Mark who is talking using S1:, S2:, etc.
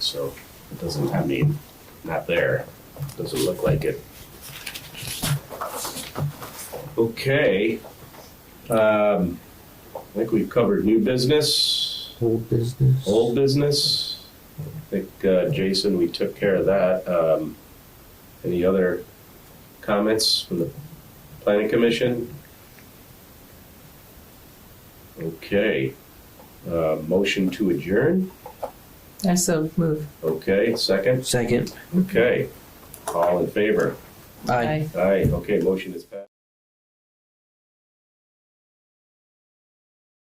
S1: so it doesn't, I mean, not there, doesn't look like it. Okay, um, I think we've covered new business,
S2: Whole business.
S1: old business. I think, uh, Jason, we took care of that, um, any other comments from the planning commission? Okay, uh, motion to adjourn?
S3: I so move.
S1: Okay, second?
S2: Second.
S1: Okay. All in favor?
S2: Aye.
S3: Aye.
S1: Aye, okay, motion is passed.